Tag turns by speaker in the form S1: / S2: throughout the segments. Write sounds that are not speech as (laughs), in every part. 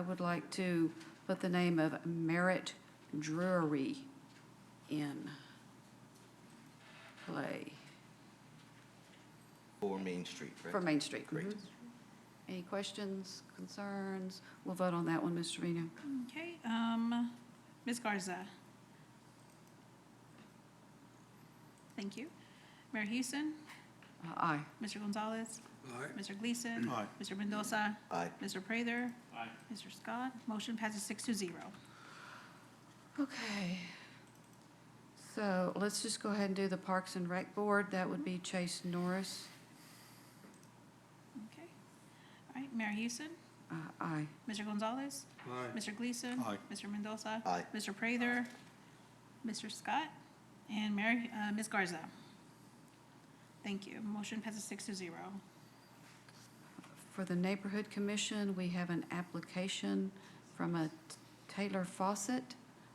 S1: I would like to put the name of Merritt Drury in play
S2: For Main Street, right?
S1: for Main Street. Mm-hmm.
S2: Great.
S1: Any questions, concerns? We'll vote on that one, Ms. Trevino.
S3: Okay, um, Ms. Garza. Thank you. Mayor Houston,
S1: Uh, Aye.
S3: Mr. Gonzalez,
S4: Aye.
S3: Mr. Gleason.
S4: Aye.
S3: Mr. Mendoza,
S2: Aye.
S3: Mr. Prather. Mr. Scott. Motion passes six to zero.
S1: Okay. So let's just go ahead and do the Parks and Rec Board. That would be Chase Norris.
S3: Okay. All right, Mayor Houston,
S1: Uh, Aye.
S3: Mr. Gonzalez,
S4: Aye.
S3: Mr. Gleason.
S4: Aye.
S3: Mr. Mendoza.
S2: Aye.
S3: Mr. Prather, Mr. Scott, and Mayor, uh, Ms. Garza. Thank you. Motion passes six to zero.
S1: For the Neighborhood Commission, we have an application from a Taylor Fawcett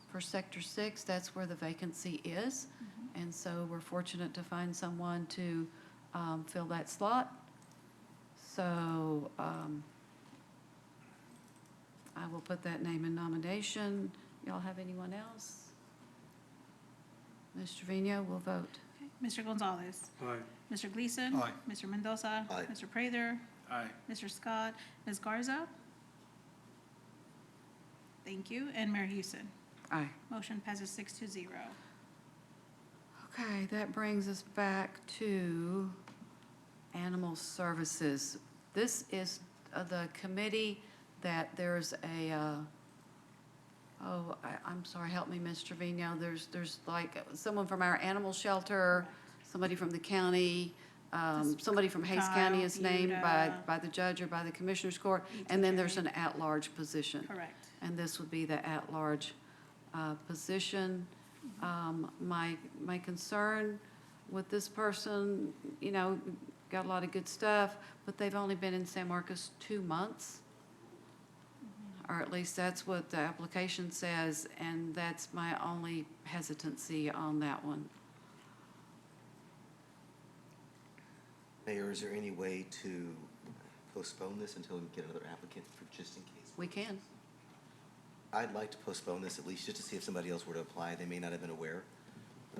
S1: for Sector Six. That's where the vacancy is. And so we're fortunate to find someone to um, fill that slot. So um, I will put that name in nomination. Y'all have anyone else? Ms. Trevino will vote.
S3: Okay, Mr. Gonzalez.
S4: Aye.
S3: Mr. Gleason.
S4: Aye.
S3: Mr. Mendoza.
S2: Aye.
S3: Mr. Prather.
S4: Aye.
S3: Mr. Scott. Ms. Garza. Thank you. And Mayor Houston.
S1: Aye.
S3: Motion passes six to zero.
S1: Okay, that brings us back to Animal Services. This is uh, the committee that there's a, uh, oh, I, I'm sorry, help me, Ms. Trevino. There's, there's like someone from our animal shelter, somebody from the county, um,
S3: Just
S1: somebody from Hayes County is
S3: Kyle,
S1: named by,
S3: Yuta.
S1: by the judge or by the commissioner's court. And then there's an at-large position.
S3: Correct.
S1: And this would be the at-large uh, position. Um, My, my concern with this person, you know, got a lot of good stuff, but they've only been in San Marcos two months. Or at least that's what the application says, and that's my only hesitancy on that one.
S2: Mayor, is there any way to postpone this until we get another applicant for just in case?
S1: We can.
S2: I'd like to postpone this at least just to see if somebody else were to apply. They may not have been aware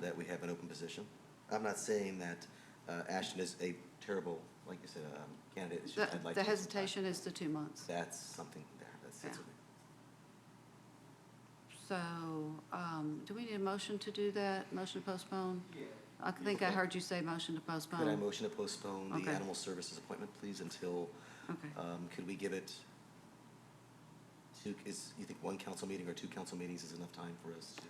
S2: that we have an open position. I'm not saying that uh, Ashton is a terrible, like you said, um, candidate. It's
S1: The
S2: just I'd like
S1: the
S2: to-
S1: hesitation is the two months.
S2: That's something there. That's, that's
S1: Yeah.
S2: okay.
S1: So um, do we need a motion to do that? Motion to postpone? I think I
S2: Okay.
S1: heard you say motion to postpone.
S2: Could I motion to postpone the
S1: Okay.
S2: animal services appointment, please, until,
S1: Okay.
S2: um, could we give it two, is, you think one council meeting or two council meetings is enough time for us to?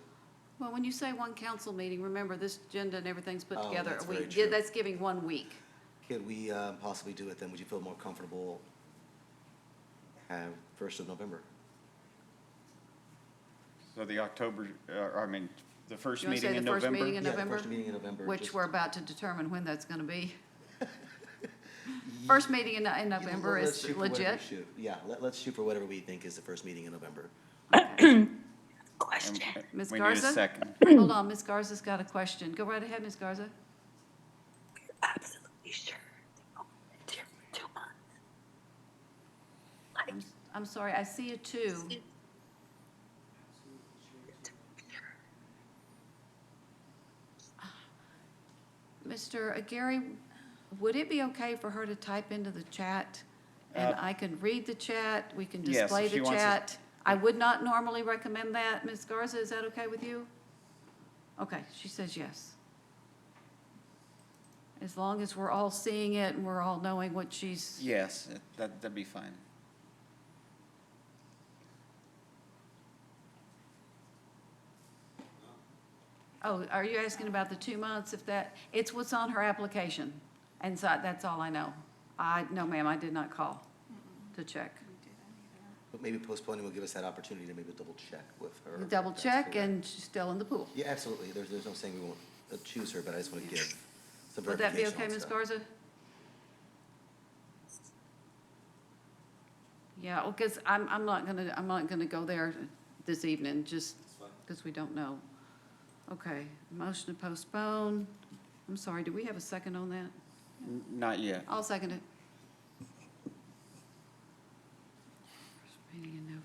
S1: Well, when you say one council meeting, remember, this agenda and everything's put
S2: Oh,
S1: together.
S2: that's
S1: We-
S2: very
S1: yeah,
S2: true.
S1: That's giving one week.
S2: Could we uh, possibly do it then? Would you feel more comfortable uh, first of November?
S5: So the October, uh, I mean, the first
S1: You wanna say
S5: meeting in
S1: the first
S5: November?
S1: meeting In
S2: Yeah, the
S1: November?
S2: first meeting in November.
S1: Which
S2: just-
S1: we're about to determine when that's going to
S2: (laughs)
S1: be. First meeting in, in
S2: Yeah,
S1: November
S2: let's
S1: is
S2: shoot for whatever we
S1: legit.
S2: shoot. Yeah, let, let's shoot for whatever we think is the first meeting in November.
S5: And- and
S1: Ms.
S5: We need
S1: Garza?
S5: a second.
S1: Hold on, Ms. Garza's got a question. Go right ahead, Ms. Garza.
S6: absolutely sure. Oh, dear, two months.
S1: I'm- I'm sorry, I see a two. Mr. Gary, would it be okay for her to type into the chat? And
S5: Uh,
S1: I can read the chat, we can
S5: Yes, if
S1: display
S5: she
S1: the
S5: wants us-
S1: chat. I would not normally recommend that. Ms. Garza, is that okay with you? Okay, she says yes. As long as we're all seeing it and we're all knowing what she's,
S5: Yes, that, that'd be fine.
S1: oh, are you asking about the two months if that, it's what's on her application. And so that's all I know. I, no ma'am, I did not call to check.
S2: But maybe postponing will give us that opportunity to maybe double check with her. if
S1: Double
S2: that's
S1: check
S2: correct.
S1: and she's still in the pool.
S2: Yeah, absolutely. There's, there's no saying we won't uh, choose her, but I just want to give some
S1: Would that be
S2: verification. on
S1: okay, Ms.
S2: stuff.
S1: Garza? Yeah, well, because I'm, I'm not gonna, I'm not gonna go there this evening, just because we don't know. Okay, motion to postpone. I'm sorry, do we have a second on that?
S5: N- Not yet.
S1: I'll second it. First meeting in